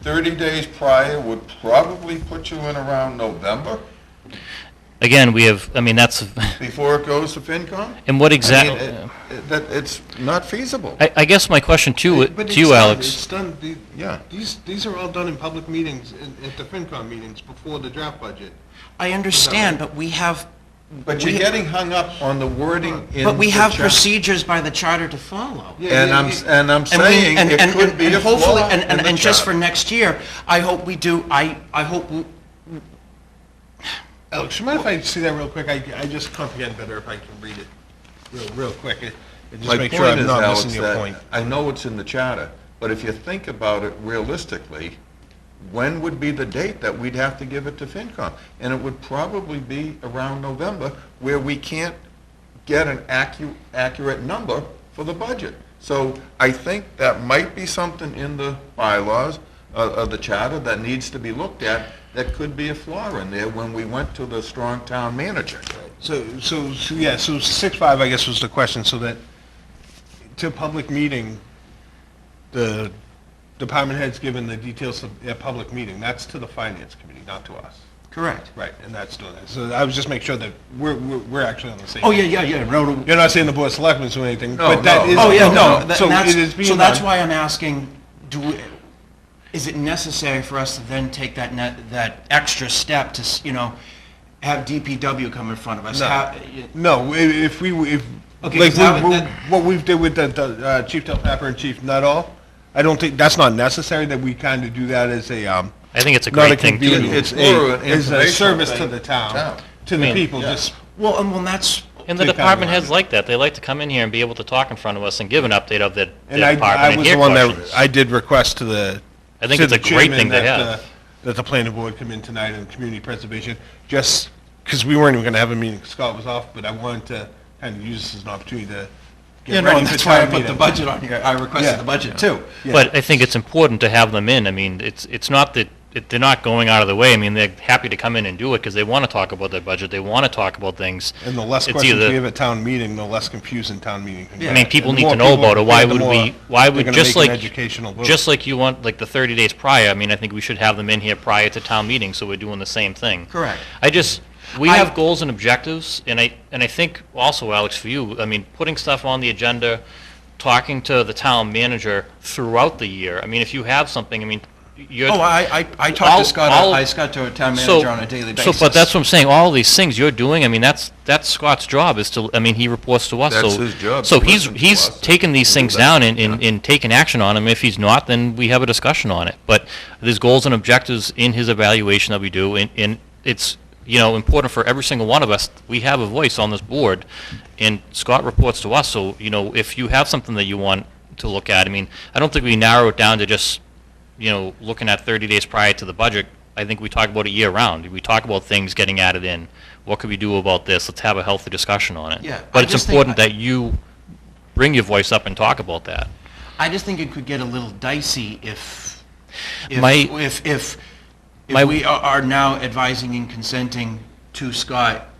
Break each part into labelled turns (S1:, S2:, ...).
S1: 30 days prior would probably put you in around November
S2: Again, we have, I mean, that's,
S1: before it goes to FinCom?
S2: and what
S1: I mean,
S2: exactly,
S1: it- it- That, it's not feasible.
S3: Uh,
S2: I, I guess my question to,
S4: But
S2: to
S4: it's
S2: you,
S4: done.
S2: Alex,
S4: It's done, the-
S1: Yeah.
S4: these, these are all done in public meetings, in- at the FinCom meetings, before the draft budget.
S3: I understand, but we have,
S1: But you're
S3: We-
S1: getting hung up on the wording in
S3: but we
S1: the
S3: have
S1: chap-
S3: procedures by the charter to follow.
S4: Yeah,
S1: And
S4: yeah,
S1: I'm, s-
S4: yeah.
S1: and I'm
S3: And we-
S1: saying
S3: and-
S1: it
S3: and-
S1: could
S3: and-
S1: be
S3: and
S1: a
S3: hopefully-
S1: flaw
S3: and-
S1: in
S3: And,
S1: the
S3: and just for
S1: charter.
S3: next year, I hope we do, I, I hope, we-
S4: Alex, you mind if I see that real quick? I, I just comprehend better if I can read it real, real quick. and- And just
S1: My
S4: make
S1: point
S4: sure I'm
S1: is,
S4: not
S1: Alex,
S4: missing your
S1: that
S4: point.
S1: I know it's in the charter, but if you think about it realistically, when would be the date that we'd have to give it to FinCom? And it would probably be around November, where we can't get an accu, accurate number for the budget. So I think that might be something in the bylaws of, of the charter that needs to be looked at, that could be a flaw in there when we went to the strong town manager.
S4: So, so, so, yeah, so six five, I guess, was the question, so that to public meeting, the department head's given the details of a public meeting. That's to the finance committee, not to us.
S3: correct.
S4: Right, and that's doing that. So I was just making sure that we're, we're, we're actually on the same.
S3: Oh,
S4: page.
S3: yeah, yeah, yeah, no, no.
S4: You're not saying the board of selectmen's doing anything,
S1: No,
S4: but that
S1: no.
S4: is.
S3: Oh, yeah, no, tha-
S4: So
S3: that's,
S4: it is being
S3: so that's
S4: done.
S3: why I'm asking, do, we- is it necessary for us to then take that net, that extra step to, s- you know, have DPW come in front of us?
S4: No.
S3: How- y-
S4: No, i- if we, if,
S3: Okay,
S4: like,
S3: so that
S4: we-
S3: would-
S4: we-
S3: that-
S4: what we've did with the- the, uh, Chief Del Pepper and Chief Nuttall, I don't think, that's not necessary, that we kind of do that as a, um.
S2: I think it's a
S4: not
S2: great thing to
S4: convenience,
S2: do.
S4: It's
S1: Or
S4: a,
S1: an
S4: it's a
S1: informational
S4: service to
S1: thing.
S4: the town,
S1: Town.
S4: to the
S2: mean,
S4: people,
S1: yeah.
S4: just,
S3: Well, and well, that's,
S2: And the
S4: Take that
S2: department heads
S4: one.
S2: like that. They like to come in here and be able to talk in front of us and give an update of their,
S4: and
S2: their
S4: I, I
S2: department and
S4: was the
S2: hear
S4: one that,
S2: questions.
S4: I did request to the.
S2: I think
S4: to
S2: it's a
S4: the
S2: great
S4: chairman
S2: thing to
S4: that
S2: have.
S4: the- That the planning board come in tonight and community preservation, just, because we weren't even gonna have a meeting, Scott was off, but I wanted to kind of use this as an opportunity to. get
S3: you know,
S4: ready for
S3: that's why I
S4: town
S3: put the
S4: meeting.
S3: budget on here, I
S4: Yeah.
S3: requested the budget too.
S4: Yeah.
S2: But I think it's important to have them in. I mean, it's, it's not that, it- they're not going out of the way. I mean, they're happy to come in and do it because they want to talk about their budget. They want to talk about things.
S4: And the less
S2: It's
S4: questions
S2: either-
S4: we have at town meeting, the less confusing town meeting can get.
S2: I mean, people
S4: And the
S2: need to
S4: more
S2: know
S4: people
S2: about it. Why
S4: get, the
S2: would
S4: more
S2: we, why
S4: they're
S2: would,
S4: gonna
S2: just
S4: make an
S2: like,
S4: educational vote.
S2: just like you want, like the 30 days prior, I mean, I think we should have them in here prior to town meeting, so we're doing the same thing.
S3: Correct.
S2: I just, we
S3: I-
S2: have goals and objectives, and I, and I think also, Alex, for you, I mean, putting stuff on the agenda, talking to the town manager throughout the year, I mean, if you have something, I mean, you're.
S3: Oh, I, I, I talked
S2: All-
S3: to Scott,
S2: all-
S3: I Scott to a town
S2: So-
S3: manager on a daily basis.
S2: So, but that's what I'm saying, all these things you're doing, I mean, that's, that's Scott's job is to, I mean, he reports to us, so.
S1: That's his job,
S2: So
S1: to
S2: he's,
S1: listen to
S2: he's
S1: us
S2: taking these
S1: and do
S2: things
S1: that,
S2: down and, and, and taking action on them. If he's not, then we have a discussion on it. But there's goals and objectives in his evaluation that we do, and, and it's, you know, important for every single one of us. We have a voice on this board, and Scott reports to us, so, you know, if you have something that you want to look at, I mean, I don't think we narrow it down to just you know, looking at 30 days prior to the budget, I think we talk about it year-round. We talk about things getting added in. What could we do about this? Let's have a healthy discussion on it.
S3: Yeah, I
S2: But it's
S3: just think
S2: important
S3: I-
S2: that you bring your voice up and talk about that.
S3: I just think it could get a little dicey if, if,
S2: My-
S3: if, if,
S2: My-
S3: if we are- are now advising and consenting to Scott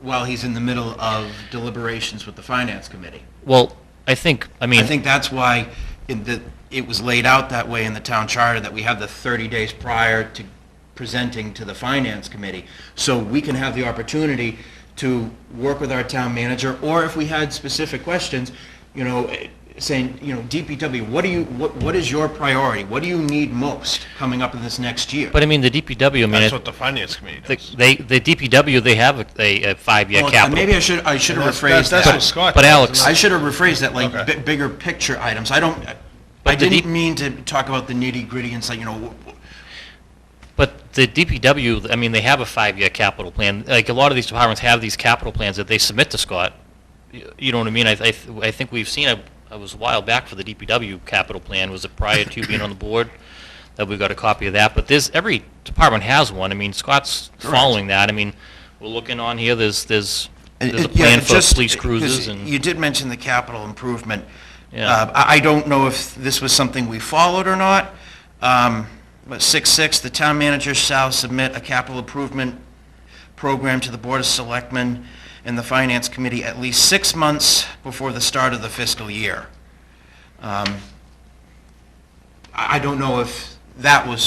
S3: while he's in the middle of deliberations with the finance committee.
S2: Well, I think, I
S3: I
S2: mean,
S3: think that's why in the, it was laid out that way in the town charter, that we have the 30 days prior to presenting to the finance committee. So we can have the opportunity to work with our town manager, or if we had specific questions, you know, eh, saying, you know, DPW, what do you, what, what is your priority? What do you need most coming up in this next year?
S2: but I mean, the DPW, I mean, it-
S4: That's what the finance committee
S2: the-
S4: does.
S2: they, the DPW, they have a- a, a five-year
S3: Well,
S2: capital.
S3: Maybe I should, I should have
S4: That's-
S3: rephrased
S4: that's
S3: that.
S4: what Scott
S2: But
S4: does,
S2: Alex-
S4: and
S3: I should have rephrased that, like,
S4: Okay.
S3: bi- bigger picture items. I don't, I
S2: the deep-
S3: didn't mean to talk about the nitty-gritty and say, you know, wh-
S2: But the DPW, I mean, they have a five-year capital plan. Like, a lot of these departments have these capital plans that they submit to Scott. Y- You know what I mean? I, I, th- I think we've seen, a- I was a while back for the DPW capital plan, was it prior to being on the board? That we got a copy of that, but there's, every department has one. I mean, Scott's following that. I mean, we're looking on here, there's, there's,
S3: And
S2: there's a
S3: it- Uh, yeah,
S2: plan
S3: it
S2: for
S3: just-
S2: police
S3: 'cause
S2: cruises and.
S3: You did mention the capital improvement.
S2: Yeah.
S3: Uh, I, I don't know if this was something we followed or not, um, but six, six, the town manager shall submit a capital improvement program to the Board of Selectmen and the Finance Committee at least six months before the start of the fiscal year. Um, I, I don't know if that was